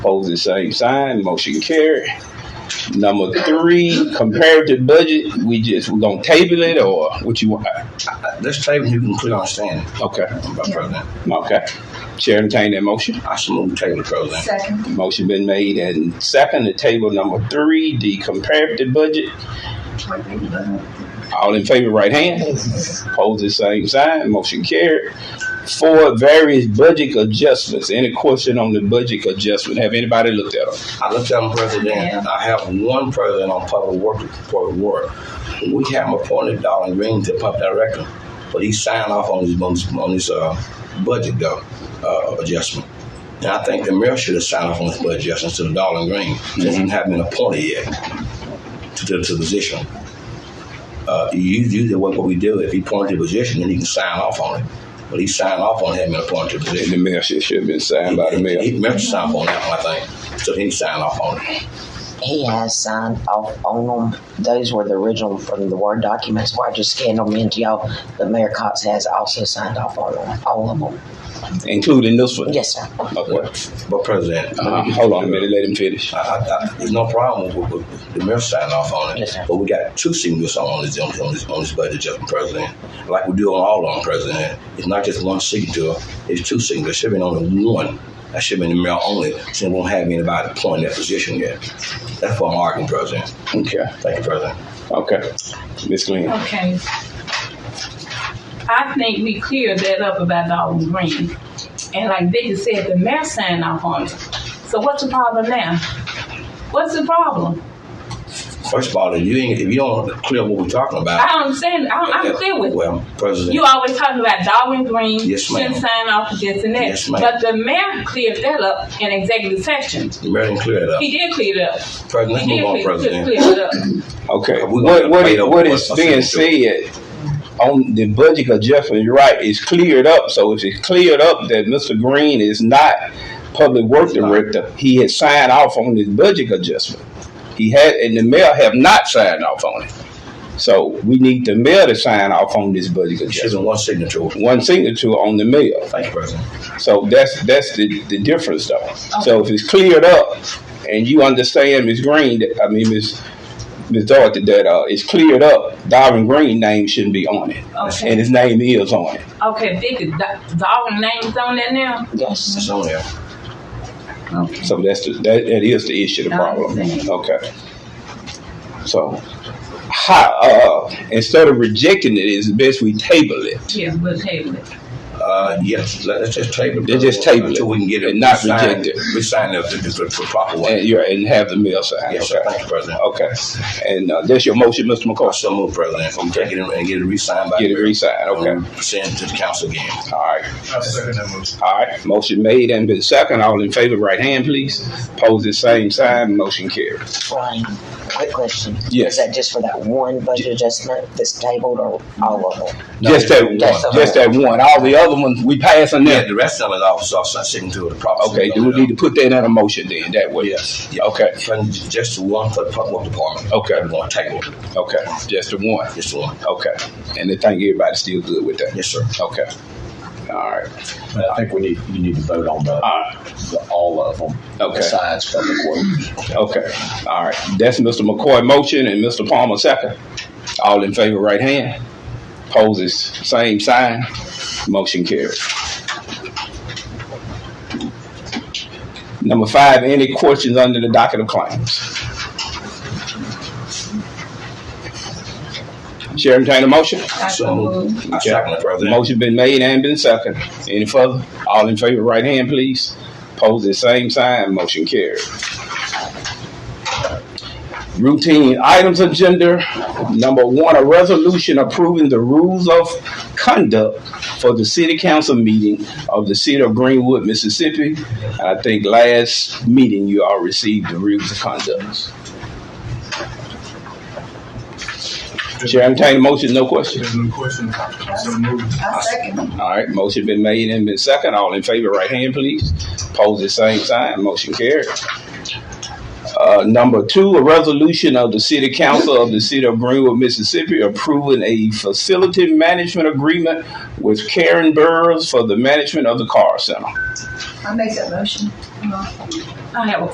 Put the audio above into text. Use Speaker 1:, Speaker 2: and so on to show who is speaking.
Speaker 1: Opposed, the same sign. Motion carried. Number three, comparative budget. We just we gonna table it or what you want?
Speaker 2: This table you can put on stand,
Speaker 1: Okay,
Speaker 2: by President.
Speaker 1: okay. Chair entertain that motion.
Speaker 2: I shall move the table, President.
Speaker 3: Second.
Speaker 1: Motion been made and second to table number three, the comparative budget. All in favor, right hand. Opposed, the same sign. Motion carried. Four, various budget adjustments. Any question on the budget adjustment? Have anybody looked at them?
Speaker 2: I looked at them, President.
Speaker 3: Yeah.
Speaker 2: I have one president on public work for work. We have him appointed Darling Green to public director, but he signed off on his on his, on his uh, budget though uh, adjustment. And I think the mayor should have signed off on his budget adjustment to Darling Green since he hasn't been appointed yet to, to, to the position. Uh, you do the what we do. If he appointed the position, then he can sign off on it. But he signed off on having appointed the position.
Speaker 1: The mayor should, should have been signed by the mayor.
Speaker 2: He mentioned something on that one, I think. So he signed off on it.
Speaker 4: He has signed off on them. Those were the original from the Word documents where I just scanned them into y'all. But Mayor Cox has also signed off on them, all of them.
Speaker 1: Including this one.
Speaker 4: Yes, sir.
Speaker 1: Okay.
Speaker 2: But President,
Speaker 1: Uh,
Speaker 5: Uh-huh.
Speaker 1: hold on a minute, let him finish.
Speaker 2: I, I, I, there's no problem with, with, with the mayor signing off on it.
Speaker 4: Yes, sir.
Speaker 2: But we got two signatures on this, on this, on this budget, Justin President. Like we do on all of them, President. It's not just one signature, it's two signatures. Should have been only one. That should have been the mayor only, since we won't have anybody appointing that position yet. That's what I'm arguing, President.
Speaker 1: Okay,
Speaker 2: Thank you, President.
Speaker 1: okay. Ms. Glenn.
Speaker 5: Okay. I think we cleared that up about Darwin Green. And like Vicky said, the mayor signed off on it. So what's the problem now? What's the problem?
Speaker 2: First of all, if you, ain't, if you don't clear what we're talking
Speaker 5: I
Speaker 2: about,
Speaker 5: don't understand. I don't, I'm clear with it.
Speaker 2: Well, President.
Speaker 5: You always talking about Darwin Green
Speaker 2: Yes, ma'am.
Speaker 5: shouldn't sign off for this and that.
Speaker 2: Yes, ma'am.
Speaker 5: But the mayor cleared that up in executive session.
Speaker 2: The mayor didn't clear it up.
Speaker 5: He did clear it up.
Speaker 2: President, let's
Speaker 5: He
Speaker 2: move
Speaker 5: did
Speaker 2: on,
Speaker 5: clear, clear,
Speaker 2: President.
Speaker 5: clear it up.
Speaker 1: Okay,
Speaker 2: Uh, we're
Speaker 1: what,
Speaker 2: gonna
Speaker 1: what,
Speaker 2: wait
Speaker 1: it-
Speaker 2: over
Speaker 1: what
Speaker 2: what
Speaker 1: is
Speaker 2: I
Speaker 1: being said on the budget adjustment, you're right, it's cleared up. So if it's cleared up that Mr. Green is not public work
Speaker 2: not.
Speaker 1: director, he has signed off on his budget adjustment. He had, and the mayor have not signed off on it. So we need the mayor to sign off on this budget
Speaker 2: It
Speaker 1: adjustment.
Speaker 2: should have been one signature.
Speaker 1: One signature on the mayor.
Speaker 2: Thank you, President.
Speaker 1: So that's that's the, the difference though. So if it's cleared up and you understand Ms. Green, that- I mean Ms. Ms. Dorothy, that uh, it's cleared up, Darwin Green name shouldn't be on it.
Speaker 5: Okay.
Speaker 1: And his name is on it.
Speaker 5: Okay, Vicky, Do- Darwin name's on that now?
Speaker 4: Yes.
Speaker 2: It's on there.
Speaker 5: Okay.
Speaker 1: So that's the, that, that is the issue, the
Speaker 5: I
Speaker 1: problem.
Speaker 5: understand.
Speaker 1: Okay. So how, uh, instead of rejecting it, it's best we table it.
Speaker 5: Yeah, we'll table it.
Speaker 2: Uh, yes, let- let's just table it.
Speaker 1: Let's just
Speaker 2: President,
Speaker 1: table it
Speaker 2: Until we can get it.
Speaker 1: and not
Speaker 2: signed-
Speaker 1: reject it.
Speaker 2: We sign it the, the, the proper way.
Speaker 1: And you're, and have the mail signed.
Speaker 2: Yes,
Speaker 1: Eh,
Speaker 2: sir.
Speaker 1: okay.
Speaker 2: Thank you, President.
Speaker 1: Okay. And uh, that's your motion, Mr.
Speaker 2: I
Speaker 1: McCoy.
Speaker 2: so move, President. I'm taking it and get it re-signed by.
Speaker 1: Get it re-signed. Okay.
Speaker 2: And Send it to the council again.
Speaker 1: All right.
Speaker 6: I'll second that motion.
Speaker 1: All right, motion made and been second. All in favor, right hand, please. Pose the same sign. Motion carried.
Speaker 4: Ryan, quick question.
Speaker 1: Yes.
Speaker 4: Is that just for that one budget adjustment that's tabled or all of them?
Speaker 1: just that one.
Speaker 4: that's the
Speaker 1: Just that one. All the other ones we pass on
Speaker 2: Yeah,
Speaker 1: them.
Speaker 2: the rest of it also, I'm sitting to the proper.
Speaker 1: Okay, do we need to put that in a motion then? That way.
Speaker 2: Yes. Yeah.
Speaker 1: Okay.
Speaker 2: Friend, Just the one for the public department.
Speaker 1: Okay.
Speaker 2: We're gonna table it.
Speaker 1: Okay. Just the one.
Speaker 2: Just the one.
Speaker 1: Okay. And I think everybody's still good with that.
Speaker 2: Yes, sir.
Speaker 1: Okay. All right.
Speaker 7: But I think we need, you need to vote on the,
Speaker 1: All right.
Speaker 7: the- all of them.
Speaker 1: Ah. Okay.
Speaker 7: Besides public works.
Speaker 1: Okay. All right. That's Mr. McCoy motion and Mr. Palmer second. All in favor, right hand. Poses same sign. Motion carried. Number five, any questions under the docket of claims? Chair entertain a motion.
Speaker 5: I
Speaker 2: So
Speaker 5: so
Speaker 2: moved.
Speaker 5: moved.
Speaker 2: I second it, President.
Speaker 1: Motion been made and been second. Any further? All in favor, right hand, please. Pose the same sign, motion carried. Routine items agenda, number one, a resolution approving the rules of conduct for the city council meeting of the city of Greenwood, Mississippi. And I think last meeting you all received the rules of conduct. Chair, entertain a motion, no questions.
Speaker 6: There's no question. So moved.
Speaker 3: I second.
Speaker 1: All right, motion been made and been second. All in favor, right hand, please. Pose the same sign. Motion carried. Uh, number two, a resolution of the City Council of the City of Greenwood, Mississippi, approving a facility management agreement with Karen Burroughs for the management of the car center.
Speaker 3: I make that motion.
Speaker 5: I have a